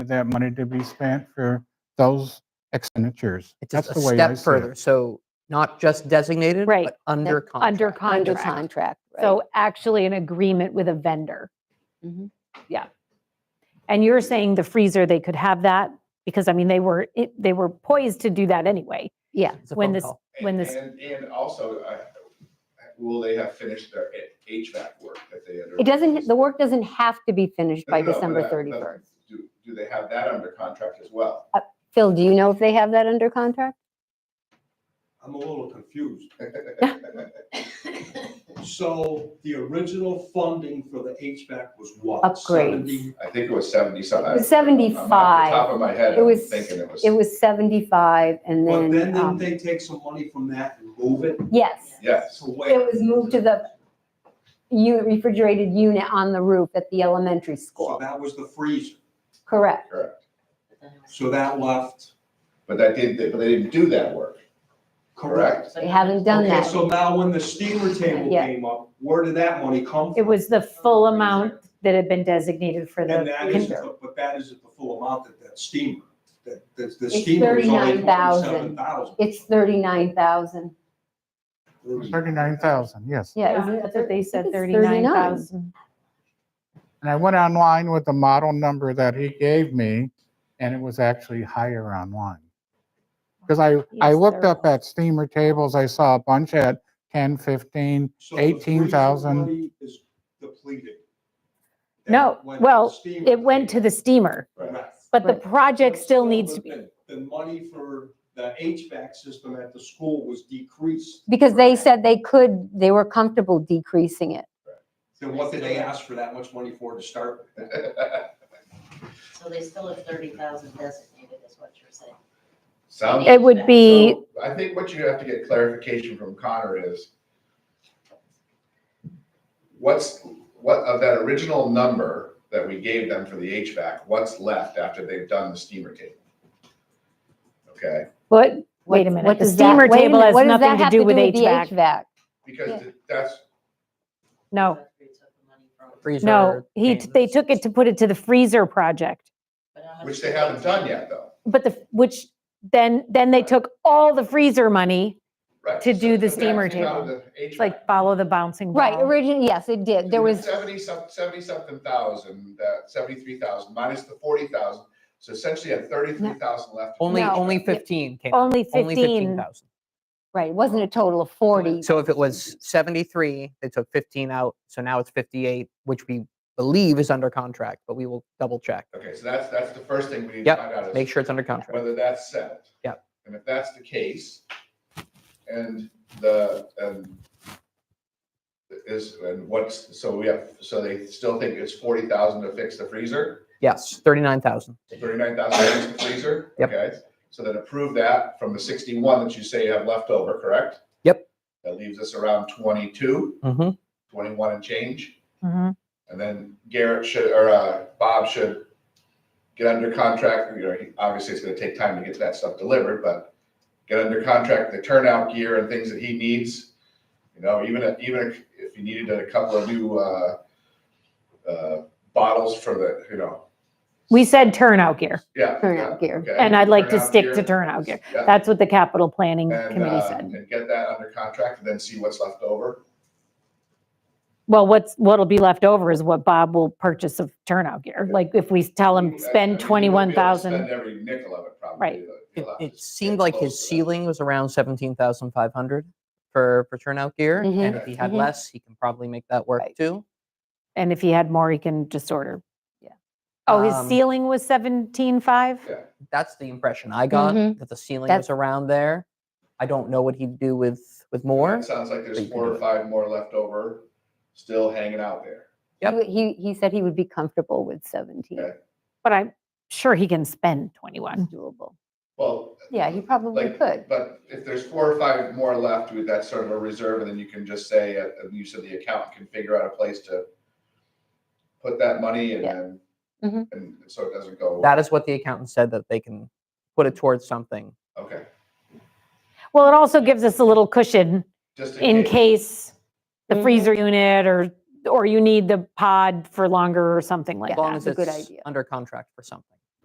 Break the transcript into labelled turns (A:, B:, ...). A: that money to be spent for those expenditures.
B: It's
A: That's
B: just a
A: the way I
B: step
A: see
B: further.
A: it.
B: So not just designated,
C: Right.
B: but under contract.
C: Under
D: Under
C: contract.
D: contract, right?
C: So actually an agreement with a vendor.
D: Mhm.
C: Yeah. And you're saying the freezer, they could have that? Because I mean, they were, it- they were poised to do that anyway.
D: Yeah,
B: It's a
C: when
B: phone
C: this-
B: call.
C: when
E: And-
C: this-
E: And, and also, uh, will they have finished their HVAC work that they? under-
D: it doesn't, the work doesn't have to be finished by
E: No, no, but
D: December
E: that- but
D: 31st.
E: Do, do they have that under contract as well?
D: Phil, do you know if they have that under contract?
F: I'm a little confused. So the original funding for the HVAC was what?
D: Upgrades.
F: 70?
E: I think it was seventy something.
D: It was 75.
E: Top of my head,
D: It
E: I'm
D: was-
E: thinking it was,
D: It was 75 and
F: But then
D: then,
F: didn't
D: um,
F: they take some money from that and move it
D: yes,
E: yes,
F: to where?
D: it was moved to the u- refrigerated unit on the roof at the elementary
F: So
D: school.
F: that was the freezer.
D: Correct.
E: correct.
F: So that left,
E: But that did, but they didn't do that work,
F: correct?
E: correct?
D: They haven't done
F: Okay,
D: that.
F: so now when the steamer table
D: Yeah.
F: came up, where did that money come from?
C: It was the full amount that had been designated for the
F: And that isn't,
C: vendor.
F: the- but that isn't the full amount that that steamer, that, that the
D: It's
F: steamer is only
D: 39,000.
F: seven thousand.
D: It's 39,000.
A: Thirty-nine thousand, yes.
D: Yeah. isn't it
C: That's what
D: thir-
C: they
D: I think
C: said,
D: it's
C: 39,000.
A: And I went online with the model number that he gave me, and it was actually higher online. Because I, I
C: Yes,
A: looked
C: there
A: up at steamer tables, I saw a bunch at 10, 15.
F: So the freezer
A: 18,000.
F: money Is depleted. And
C: No,
F: went to
C: well,
F: the steamer
C: It went to the steamer,
E: Right.
F: Right.
C: but the
D: Right.
C: project
F: But
C: still needs to be.
F: the- The money for the HVAC system at the school was decreased.
D: Because they said they could, they were comfortable decreasing it.
F: Then what did they ask for that much money for to start? with?
G: So they still have thirty thousand designated, is what you're saying.
E: Sounds.
C: It would be,
E: So I think what you have to get clarification from Connor is what's, what of that original number that we gave them for the HVAC, what's left after they've done the steamer table? Okay,
C: what, wait a
D: What-
C: minute,
D: what
C: the
D: does that-
C: steamer
D: wait a
C: table
D: minute,
C: has
D: what does
C: nothing
D: that
C: to
D: have
C: do with
D: the
C: HVAC.
D: Yeah.
E: because that's,
C: no,
G: They took the money from-
B: Freezer
C: no. He,
B: came to
C: they
B: the-
C: took it to put it to the freezer project.
G: but how much
E: which
G: did
E: they haven't done yet though.
C: But the, which, then, then they took all the freezer money,
E: Right.
C: To do the
E: So
C: steamer
E: that's out of the
C: It's
E: HVAC.
C: like follow the bouncing
D: Right,
C: ball.
D: originally, yes, it did. There was,
E: Seventy some, seventy something thousand, uh, seventy-three thousand minus the forty thousand. So essentially you have thirty-three thousand left. to
B: Only,
E: do.
D: No.
B: only 15 came. out.
C: Only
B: Only
C: 15.
B: 15,000.
D: right, it wasn't a total of 40.
B: So if it was 73, they took 15 out, so now it's 58, which we believe is under contract, but we will double check.
E: Okay, so that's, that's the first thing we need to
B: Yep,
E: find out is
B: Make sure it's under contract.
E: whether that's settled.
B: Yep.
E: And if that's the case, and the, and is, and what's, so we have, so they still think it's forty thousand to fix the freezer,
B: Yes, 39,000.
E: thirty-nine thousand to fix the freezer?
B: Yep.
E: Okay, so then approve that from the sixty-one that you say you have left over, correct?
B: Yep.
E: That leaves us around 22, 21
B: Mm-hmm.
E: and change.
C: Mhm.
E: And then Garrett should, or uh, Bob should get under contract, you know, he- obviously it's gonna take time to get that stuff delivered, but get under contract, the turnout gear and things that he needs. You know, even, if- even if- if you needed a couple of new, uh, uh, bottles for the, you know,
C: We said turnout gear,
E: yeah.
D: Turnout
E: yeah,
D: gear.
E: okay,
C: and I'd like to
E: turnout
C: stick
E: gear.
C: to turnout gear.
E: Yeah,
C: That's what the capital planning
E: And,
C: committee
E: uh,
C: said.
E: and get that under contract and then see what's left over.
C: Well, what's, what'll be left over is what Bob will purchase of turnout gear. Like if we tell him,
E: I- I mean,
C: spend
E: he won't be able to
C: 21,000.
E: Spend every nickel of it probably.
C: Right.
E: but
B: It,
E: he'll have to
B: it
E: get
B: seemed like
E: close
B: his
E: to that.
B: ceiling was around 17,500 for, for turnout gear.
C: Mm-hmm,
B: And if he had
D: Mhm.
B: less, he can probably make that work
D: Right.
B: too.
C: And if he had more, he can just order.
D: Yeah.
C: Oh, his
B: Um,
C: ceiling was 17.5?
E: Yeah.
B: That's the impression I got,
D: Mhm.
B: that the ceiling
D: That's-
B: was around there. I don't know what he'd do with, with more.
E: It sounds like
B: Or
E: there's
B: you can
E: four
B: do
E: or
B: it.
E: five more left over, still hanging out there.
B: Yep.
D: He, he said he would be comfortable with 17.
E: Okay.
C: But I'm sure he can spend 21.
D: It's doable.
E: Well,
D: Yeah, he probably
E: like,
D: could.
E: but if there's four or five more left, we- that's sort of a reserve, and then you can just say, uh, and you said the accountant can figure out a place to put that money and
D: Yeah.
E: then,
D: Mhm.
E: and so it doesn't go,
B: Mm-hmm. That is what the accountant said, that they can put it towards something.
E: okay.
C: Well, it also gives us a little cushion
E: Just
C: in case the
D: Mhm.
C: freezer unit or, or you need the pod for longer or something like
B: As
C: that.
B: long as
D: that's a good
B: it's
D: idea.
B: under contract for something.